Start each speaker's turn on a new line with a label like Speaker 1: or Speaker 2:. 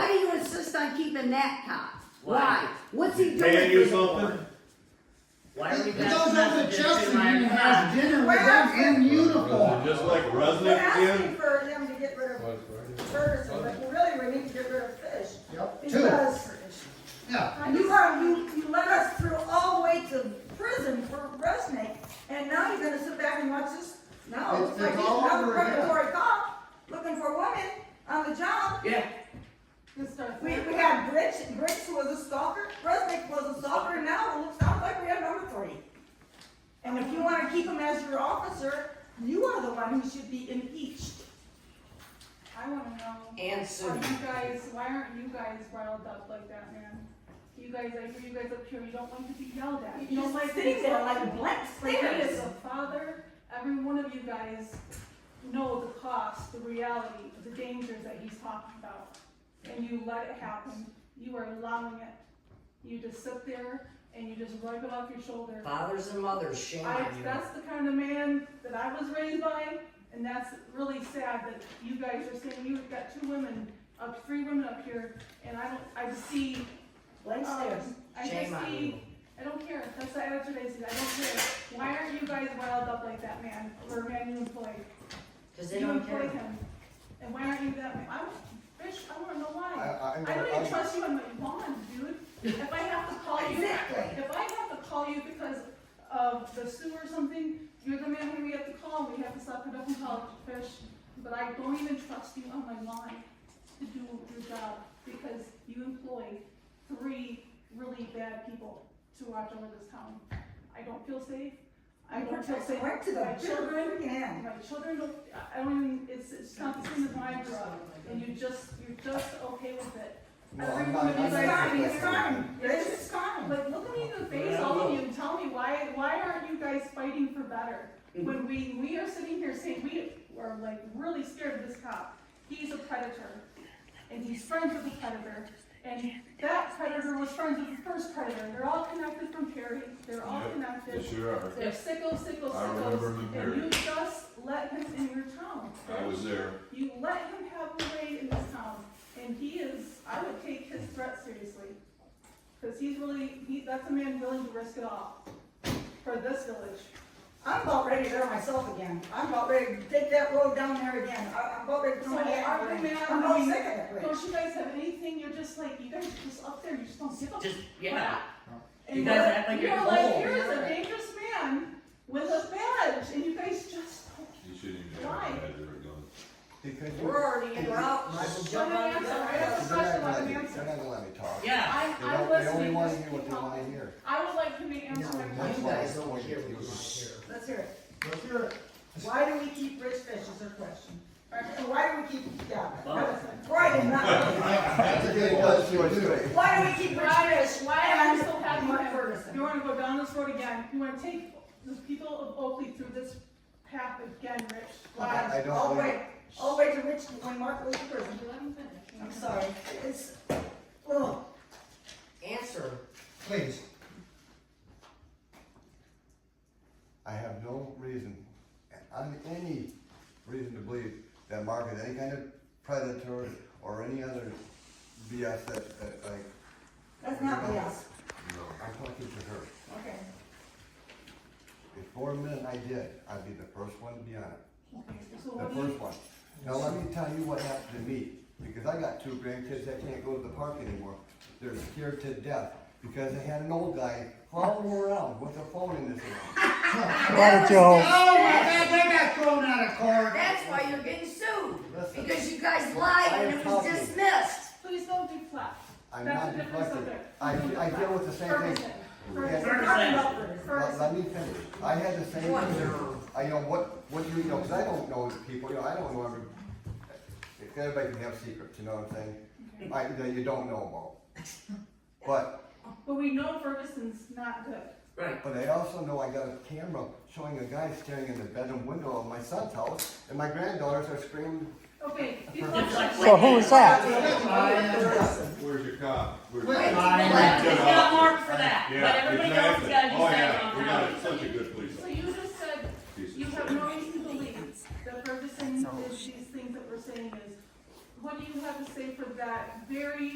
Speaker 1: the necktie.
Speaker 2: Why?
Speaker 1: Why? What's he doing?
Speaker 3: May I do
Speaker 1: with it?
Speaker 3: something?
Speaker 2: Why are we
Speaker 4: It
Speaker 2: back
Speaker 4: goes
Speaker 2: to
Speaker 4: up
Speaker 2: the
Speaker 4: to Chelsea
Speaker 2: July
Speaker 4: and
Speaker 2: account?
Speaker 4: has dinner with them in uniform.
Speaker 3: Just like
Speaker 5: We're
Speaker 3: Rusnick
Speaker 5: asking
Speaker 3: again?
Speaker 5: for them to get rid of Ferguson, but really, we need to get rid of Fish.
Speaker 4: Yep, two,
Speaker 5: Because
Speaker 4: yeah.
Speaker 5: you are, you, you led us through all the way to prison for Resnick, and now you're gonna sit back and watch this? No,
Speaker 4: It's-
Speaker 5: it's like
Speaker 4: it's all
Speaker 5: another
Speaker 4: over again.
Speaker 5: regulatory cop, looking for women on the job.
Speaker 2: Yeah,
Speaker 5: We, we had Rich, Rich was a stalker, Resnick was a stalker, and now it looks, sounds like we have number three. And if you wanna keep him as your officer, you are the one who should be impeached.
Speaker 6: I wanna know,
Speaker 2: and
Speaker 6: are
Speaker 2: soon.
Speaker 6: you guys, why aren't you guys riled up like that, man? You guys, I hear you guys up here, you don't like to be yelled at.
Speaker 5: You're
Speaker 6: don't
Speaker 5: just
Speaker 6: like to be
Speaker 5: sitting there
Speaker 6: spoken
Speaker 5: like a
Speaker 6: to.
Speaker 5: blank
Speaker 6: Like, it is
Speaker 5: stare.
Speaker 6: a father, every one of you guys know the cost, the reality, the dangers that he's talking about. And you let it happen, you are allowing it. You just sit there and you just rub it off your shoulder.
Speaker 2: Fathers and mothers, shame
Speaker 6: I,
Speaker 2: on you.
Speaker 6: that's the kind of man that I was raised by, and that's really sad that you guys are saying you've got two women, up, three women up here, and I don't, I just see,
Speaker 5: Blank
Speaker 6: um,
Speaker 5: stares.
Speaker 6: I
Speaker 2: Shame
Speaker 6: just
Speaker 2: on you.
Speaker 6: see, I don't care, that's the attitude I see, I don't care. Why aren't you guys riled up like that man, or man you employ?
Speaker 2: Cause they
Speaker 6: You
Speaker 2: don't
Speaker 6: employ
Speaker 2: care.
Speaker 6: him, and why aren't you that man? I'm, bitch, I wanna know why.
Speaker 7: I,
Speaker 6: I
Speaker 7: I,
Speaker 6: don't even
Speaker 7: I,
Speaker 6: trust you on my bond, dude. If I have to call you.
Speaker 5: Exactly.
Speaker 6: If I have to call you because of the sewer or something, you're the man who we have to call, we have to suck it up and call it fish. But I don't even trust you on my lawn to do your job, because you employ three really bad people to watch over this town. I don't feel safe, I don't feel safe
Speaker 5: Right to
Speaker 6: with my
Speaker 5: the
Speaker 6: children,
Speaker 5: children, yeah.
Speaker 6: my children don't, I- I don't even, it's, it's not the same as my job, and you just, you're just okay with it.
Speaker 7: no, I'm not, I'm
Speaker 5: It's
Speaker 7: not.
Speaker 5: fine, it's fine, this is fine.
Speaker 6: Like, look at me in the face, all of you, and tell me why, why aren't you guys fighting for better?
Speaker 7: Mm-hmm.
Speaker 6: When we, we are sitting here saying, we are like really scared of this cop, he's a predator, and he's friends with the predator, and that predator was friends with the first predator, they're all connected from Perry, they're all
Speaker 3: Yep.
Speaker 6: connected.
Speaker 3: Yes, you are.
Speaker 6: They're sickles, sickles,
Speaker 3: I remember
Speaker 6: sickles,
Speaker 3: the
Speaker 6: and you
Speaker 3: Perry.
Speaker 6: just let him in your town.
Speaker 3: I was there.
Speaker 6: You let him have a way in this town, and he is, I would take his threat seriously. Cause he's really, he, that's a man willing to risk it all for this village.
Speaker 5: I'm about ready to there myself again. I'm about ready to take that road down there again. I- I'm about ready to
Speaker 6: So
Speaker 5: throw my hand
Speaker 6: are
Speaker 5: in
Speaker 6: you
Speaker 5: the
Speaker 6: mad?
Speaker 5: ring. I'm about sick of that bridge.
Speaker 6: Don't you guys have anything, you're just like, you guys are just up there, you just don't give a
Speaker 2: Just, yeah.
Speaker 6: And
Speaker 2: You guys
Speaker 6: we're-
Speaker 2: act like
Speaker 6: we
Speaker 2: you're
Speaker 6: are like,
Speaker 2: cool.
Speaker 6: here is a dangerous man with a badge, and you guys just don't
Speaker 3: You shouldn't even
Speaker 6: Why?
Speaker 3: have a badge or a gun.
Speaker 7: Because you.
Speaker 2: We're already in route.
Speaker 7: Michael,
Speaker 2: Just jump on the
Speaker 6: Johnson, I
Speaker 2: gun.
Speaker 6: have-
Speaker 7: They're not gonna let you, they're not gonna let me talk. They
Speaker 2: Yeah.
Speaker 6: I, I
Speaker 7: don't,
Speaker 6: was.
Speaker 7: they only wanna hear what they wanna hear.
Speaker 6: I would like to be answered my
Speaker 7: That's
Speaker 2: You
Speaker 6: question.
Speaker 7: why I
Speaker 2: guys don't
Speaker 7: pointed
Speaker 2: care
Speaker 7: to
Speaker 2: what you
Speaker 7: you.
Speaker 2: want to hear.
Speaker 5: Let's hear it.
Speaker 7: Let's hear it.
Speaker 5: Why do we keep rich fish is our question. And why do we keep, yeah,
Speaker 2: Well-
Speaker 5: right and not,
Speaker 7: That's a good question.
Speaker 5: why do we keep rich fish?
Speaker 6: Why am I so happy
Speaker 5: Mark
Speaker 6: that
Speaker 5: Ferguson.
Speaker 6: you wanna go down this road again? You wanna take the people of Oakley through this path again, Rich? Why?
Speaker 7: I I
Speaker 5: All
Speaker 7: don't
Speaker 5: the
Speaker 7: believe,
Speaker 5: way, all the way to Richmond when Mark was in prison. I'm sorry. It's, oh, ugh.
Speaker 2: Answer.
Speaker 7: please. I have no reason, on any reason to believe that Mark is any kind of predator or any other BS that, that like,
Speaker 5: that's not me, yes.
Speaker 7: I'm talking to her.
Speaker 5: Okay.
Speaker 7: If for a minute I did, I'd be the first one to be on it,
Speaker 6: Okay, so
Speaker 7: the
Speaker 6: what do
Speaker 7: first
Speaker 6: you,
Speaker 7: one. Now, let me tell you what happened to me, because I got two grandkids that can't go to the park anymore. They're scared to death, because they had an old guy crawling around with a phone in his hand.
Speaker 1: That was-
Speaker 4: Oh my God, they got thrown out of court.
Speaker 1: That's why you're getting sued,
Speaker 7: Listen.
Speaker 1: because you guys lied and it was
Speaker 7: I am talking.
Speaker 1: dismissed.
Speaker 6: please don't deflect.
Speaker 7: I'm
Speaker 6: That's
Speaker 7: not
Speaker 6: a different
Speaker 7: deflecting,
Speaker 6: subject.
Speaker 7: I, I deal with the same thing.
Speaker 6: Ferguson, Ferguson,
Speaker 5: We're talking about Ferguson.
Speaker 7: Let,
Speaker 6: Ferguson.
Speaker 7: let me finish, I had the same thing.
Speaker 2: Wonder.
Speaker 7: I, you know, what, what do you, you know, cause I don't know people, you know, I don't know every, everybody can have secrets, you know what I'm saying? I, that you don't know about. But
Speaker 6: But we know Ferguson's not good.
Speaker 2: Right.
Speaker 7: But I also know I got a camera showing a guy staring in the bedroom window of my son's house, and my granddaughters are screaming.
Speaker 6: Okay,
Speaker 2: It's like-
Speaker 6: deflect.
Speaker 8: So who is that?
Speaker 3: Where's your cop? Where's
Speaker 4: Wait,
Speaker 3: your
Speaker 4: I-
Speaker 3: cop?
Speaker 4: I-
Speaker 3: Good
Speaker 9: It's got
Speaker 3: officer.
Speaker 9: marked for that, but
Speaker 3: Yeah,
Speaker 9: everybody else has
Speaker 3: exactly.
Speaker 9: gotta do
Speaker 3: Oh,
Speaker 9: something
Speaker 3: yeah,
Speaker 9: on
Speaker 3: we
Speaker 9: how
Speaker 3: got such a good police
Speaker 6: So
Speaker 3: officer.
Speaker 6: you just said
Speaker 3: Piece of
Speaker 6: You have
Speaker 3: shit.
Speaker 6: no reason to believe that Ferguson did these things that we're saying is, what do you have to say for that very